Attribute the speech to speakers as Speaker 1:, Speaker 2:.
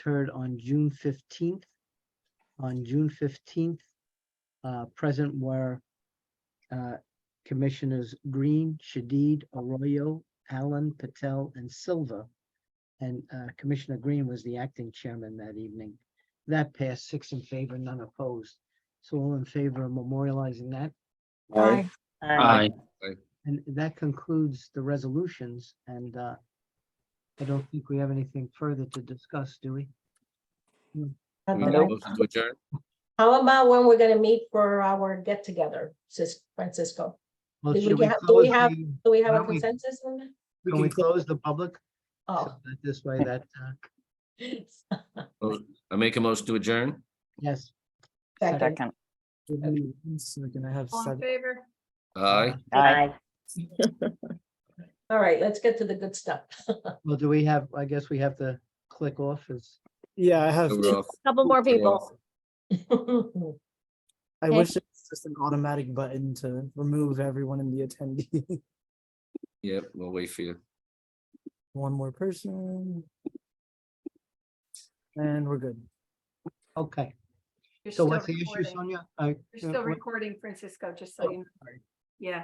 Speaker 1: occurred on June fifteenth. On June fifteenth, uh, present were uh, Commissioners Green, Shadid, Arroyo, Allen, Patel, and Silva. And uh, Commissioner Green was the acting chairman that evening. That passed six in favor, none opposed. So all in favor of memorializing that.
Speaker 2: Aye.
Speaker 3: Aye.
Speaker 1: And that concludes the resolutions and uh, I don't think we have anything further to discuss, do we?
Speaker 2: Not that I-
Speaker 3: Motion to adjourn.
Speaker 2: How about when we're gonna meet for our get together, Sis Francisco?
Speaker 1: Well,
Speaker 2: Did we
Speaker 1: should we
Speaker 2: have- do we
Speaker 1: close
Speaker 2: have-
Speaker 1: the-
Speaker 2: Do we have
Speaker 1: Why
Speaker 2: a
Speaker 1: don't we-
Speaker 2: consensus on that?
Speaker 1: Can we close the public? so
Speaker 2: Oh.
Speaker 1: that This way that, uh,
Speaker 3: I make a motion to adjourn.
Speaker 1: yes.
Speaker 2: Second.
Speaker 4: So we're gonna have
Speaker 5: All in
Speaker 4: seven.
Speaker 5: favor?
Speaker 3: Aye.
Speaker 6: Aye.
Speaker 2: All right, let's get to the good stuff.
Speaker 1: Well, do we have, I guess we have to click off as.
Speaker 4: Yeah, I have.
Speaker 3: So
Speaker 4: two-
Speaker 3: we're off.
Speaker 6: Couple more
Speaker 3: We're
Speaker 6: people.
Speaker 3: off.
Speaker 4: I
Speaker 6: Okay.
Speaker 4: wish it was just an automatic button to remove everyone in the attendee.
Speaker 3: Yep, we'll wait for you.
Speaker 4: One more person. And we're good.
Speaker 1: Okay,
Speaker 5: You're
Speaker 1: so
Speaker 5: still
Speaker 1: what's the issue,
Speaker 5: recording.
Speaker 1: Sonia? Oh, I-
Speaker 5: You're still recording, Francisco, just so you know.